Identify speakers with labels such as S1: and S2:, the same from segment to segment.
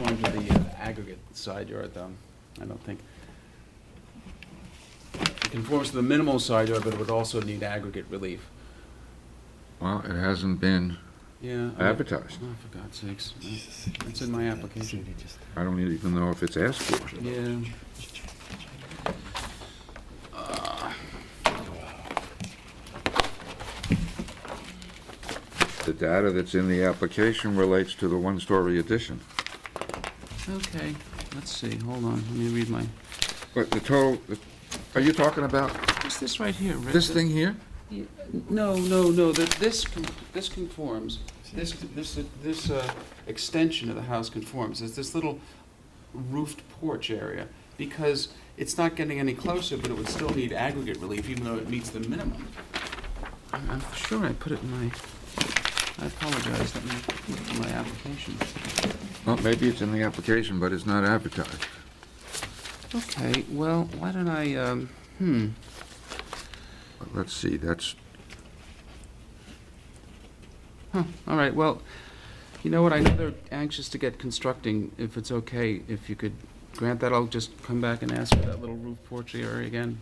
S1: uh, aggregate side yard, though, I don't think. It conforms to the minimal side yard, but it would also need aggregate relief.
S2: Well, it hasn't been
S1: Yeah. I-
S2: advertised.
S1: Oh, for God's sakes, it's in my application.
S2: I don't e-, even know if it's asked for.
S1: Yeah.
S2: The data that's in the application relates to the one-story addition.
S1: Okay, let's see, hold on, let me read my,
S2: But the total, are you talking about
S1: what's this right here? Rick?
S2: this thing here?
S1: Yeah, No, no, no, that this, con- this conforms, this, this, this uh, extension of the house conforms, it's this little roofed porch area, because it's not getting any closer, but it would still need aggregate relief, even though it meets the minimum. I'm I'm sure I put it in my, I apologize, let me look at my application.
S2: Well, maybe it's in the application, but it's not advertised.
S1: Okay, well, why don't I, um, hmm,
S2: But Let's see, that's,
S1: Huh, all right, well, you know what, I know they're anxious to get constructing, if it's okay, if you could grant that, I'll just come back and ask for that little roof porch area again.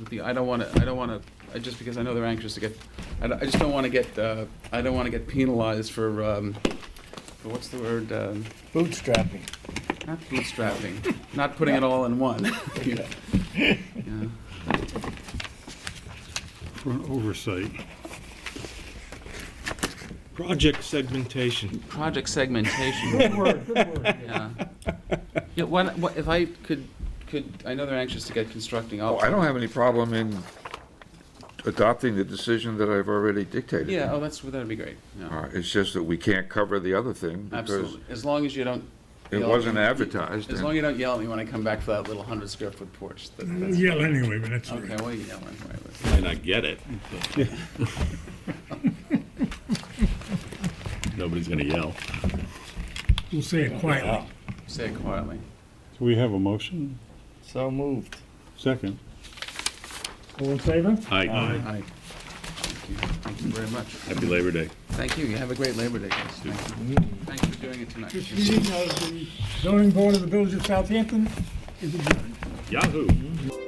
S1: With the- I don't wanna, I don't wanna, I- just because I know they're anxious to get, I don't- I just don't wanna get, uh, I don't wanna get penalized for, um, for what's the word, um,
S3: Bootstrapping.
S1: not bootstrapping, not putting it all in one. Yeah. Yeah.
S4: for an oversight. Project segmentation.
S1: Project segmentation,
S3: Word, good word.
S1: yeah. Yeah, why, not- what, if I could, could, I know they're anxious to get constructing, I'll.
S2: oh, I don't have any problem in adopting the decision that I've already dictated.
S1: Yeah, oh, that's, that'd be great, yeah,
S2: Uh, It's just that we can't cover the other thing because
S1: absolutely, as long as you don't.
S2: it
S1: yell at
S2: wasn't
S1: me-
S2: advertised.
S1: As
S2: and-
S1: long as you don't yell at me when I come back for that little hundred square foot porch, that-
S4: We'll
S1: that's,
S4: Yell anyway, but that's all
S1: okay,
S4: right.
S1: well, you yell at me.
S5: might not get it. but- Nobody's gonna yell.
S4: We'll say it quietly.
S1: say it quietly.
S6: Do we have a motion?
S3: So moved.
S6: Second.
S3: All in favor?
S5: Aye,
S1: Aye. Thank you, thank you very much.
S5: happy Labor Day.
S1: Thank you, you have a great Labor Day, guys, thank you.
S3: Mm-hmm.
S1: Thanks for doing it tonight.
S3: This meeting of the zoning board of the village of Southampton is adjourned.
S5: Yahoo!